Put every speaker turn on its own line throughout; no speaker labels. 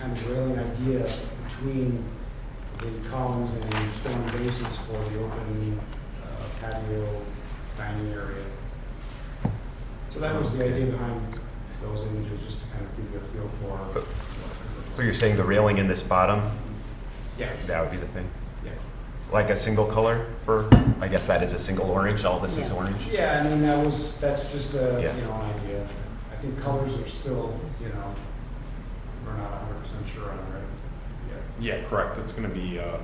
kind of railing idea between the columns and stone bases for the open uh, patio dining area. So that was the idea behind those images, just to kind of give you a feel for,
So- So you're saying the railing in this bottom,
yeah,
that would be the thing?
yeah.
Like a single color for, I guess that is a single orange, all this is
Yeah.
orange?
Yeah, I mean, that was, that's just a,
Yeah.
you know, an idea. I think colors are still, you know, we're not hundred percent sure on, right? Yeah.
Yeah, correct. It's going to be uh,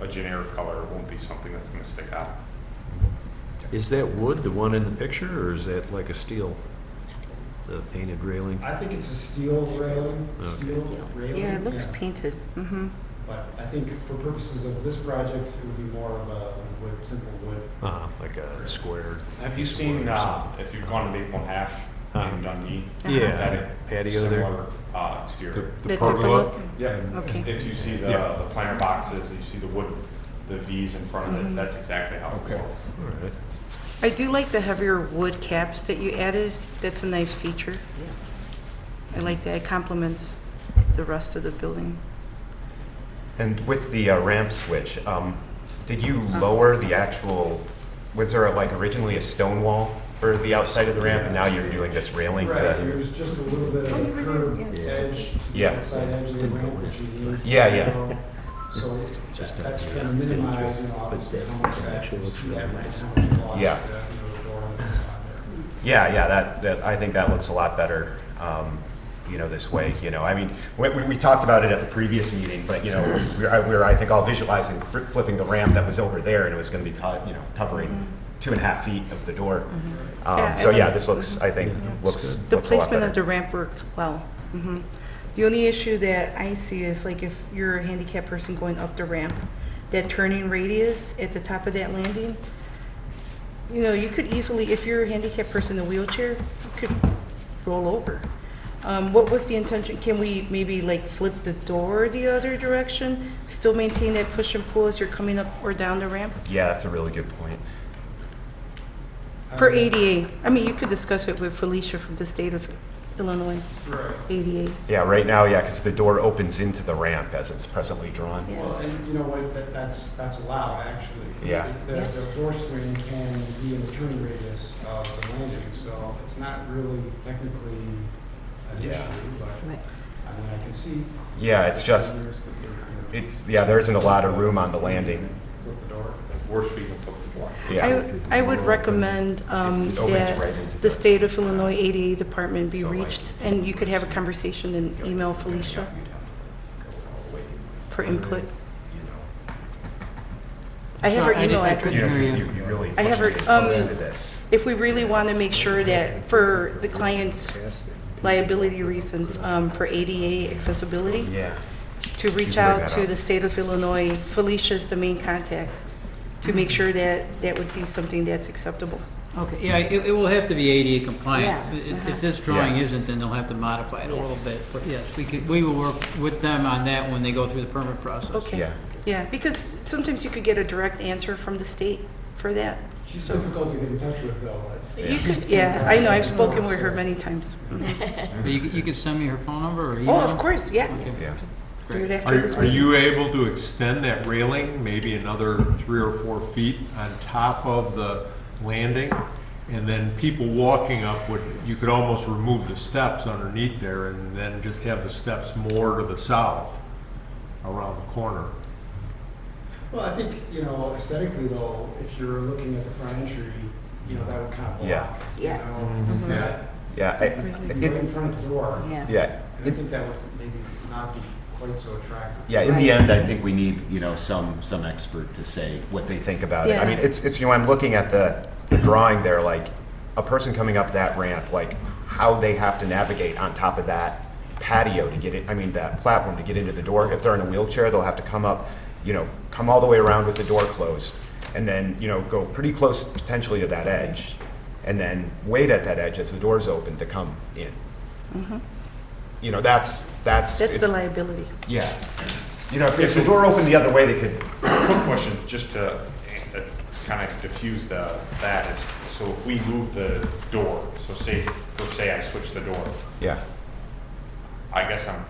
a generic color. It won't be something that's going to stick out.
Is that wood, the one in the picture, or is that like a steel? The painted railing?
I think it's a steel railing,
Okay.
steel railing.
Yeah, it looks painted, mm-hmm.
But I think for purposes of this project, it would be more of a wood, simple wood.
Uh-huh, like a square.
Have you seen, uh, if you've gone to Maple and Hash in Dundee?
Yeah,
that
that patio there.
Similar uh, exterior.
Uh-huh. The
pergola?
pergola?
Yeah.
Okay.
If you see the
Yeah.
the planter boxes, you see the wood, the Vs in front
Mm-hmm.
of it, that's exactly how it
Okay.
works.
All right.
I do like the heavier wood caps that you added. That's a nice feature. I like that. It complements the rest of the building.
And with the uh, ramp switch, um, did you
Uh-huh.
lower the actual, was there like originally a stone wall for the outside of the ramp, and now you're doing this railing
Right,
to?
there's just a little bit of a curved
yeah.
edge to the
Yeah.
outside edge of the
Didn't go
ramp,
in.
which you need.
Yeah, yeah.
you know. So
Just
that's
not-
gonna minimize, you know, obviously,
that
how much that,
actually looks really
yeah,
nice.
how much loss, uh, you
Yeah.
know, the door on the side there.
Yeah, yeah, that, that, I think that looks a lot better, um, you know, this way, you know, I mean, we, we- we talked about it at the previous meeting, but, you know, we were, I- we were, I think, all visualizing fri- flipping the ramp that was over there, and it was gonna be, co- you know, covering two and a half feet of the door.
Mm-hmm. Yeah,
Um,
I
so, yeah,
like-
this looks, I think,
Yeah,
looks,
it's good.
The
looks a lot
placement of
better.
the ramp works well. Mhm. The only issue that I see is like if you're a handicapped person going up the ramp, that turning radius at the top of that landing, you know, you could easily, if you're a handicapped person in a wheelchair, you could roll over. Um, What was the intention? Can we maybe like flip the door the other direction? Still maintain that push and pull as you're coming up or down the ramp?
Yeah, that's a really good point.
Per
Um,
I mean,
ADA, I mean, you could discuss it with Felicia from the state of Illinois,
Right.
ADA.
Yeah, right now, yeah, because the door opens into the ramp as it's presently drawn.
Yeah.
Well, and you know what, that, that's, that's allowed, actually.
Yeah.
The,
Yes.
the door swing can be in the turn radius of the landing, so it's not really technically an issue,
Yeah.
but, I mean, I can see.
Yeah, it's just, it's, yeah, there isn't a lot of room on the landing.
With the door.
Worst we can put the block.
Yeah.
I, I would recommend um,
It opens right into
that the
the-
state of Illinois ADA department be
So, like-
reached, and you could have a conversation and email Felicia for input. I have her
Sure, I
email
did- I
address.
did-
You, you you really
I have her-
pushed
um,
close to this.
If we really want to make sure that for the client's liability reasons, um, for ADA accessibility,
Yeah.
to reach
bring
out
that
to
up.
the state of Illinois, Felicia's the main contact, to
Mm-hmm.
make sure that that would be something that's acceptable.
Okay, yeah, it, it will have to be ADA compliant.
Yeah,
If-
uh-huh.
If this drawing
Yeah.
isn't, then they'll have to modify it a little bit. But yes, we could, we will work with them on that when they go through the permit process.
Okay.
Yeah.
Yeah, because sometimes you could get a direct answer from the state for that.
She's
So-
difficult to get in touch with, though. but-
You could, yeah, I know, I've spoken with her many times.
But you, you could send me her phone number or email?
Oh, of course, yeah.
Okay,
Yeah.
Do it
Great.
after
Are
this
are
meeting.
you able to extend that railing maybe another three or four feet on top of the landing? And then people walking up would, you could almost remove the steps underneath there and then just have the steps more to the south around the corner.
Well, I think, you know, aesthetically though, if you're looking at the front entry, you know, that would kind of block.
Yeah. Mm-hmm.
you
Yeah.
know, that-
Yeah,
You're
I-
right in
it,
front of the door.
yeah,
And I
it,
think that would maybe not be quite so attractive.
Yeah, in the end, I think we need, you know, some, some expert to say what they think about it. I
Yeah.
mean, it's, it's, you know, I'm looking at the, the drawing there, like, a person coming up that ramp, like, how they have to navigate on top of that patio to get it, I mean, that platform to get into the door. If they're in a wheelchair, they'll have to come up, you know, come all the way around with the door closed, and then, you know, go pretty close potentially to that edge, and then wait at that edge as the door's open to come in. You know, that's, that's.
Mm-hmm. That's the
it's-
liability.
yeah. You know, if, if the door opened the other way, they could.
Quick question, just to kind of diffuse the, that is, so if we move the door, so say, so say I switch the door,
Yeah.
I guess I'm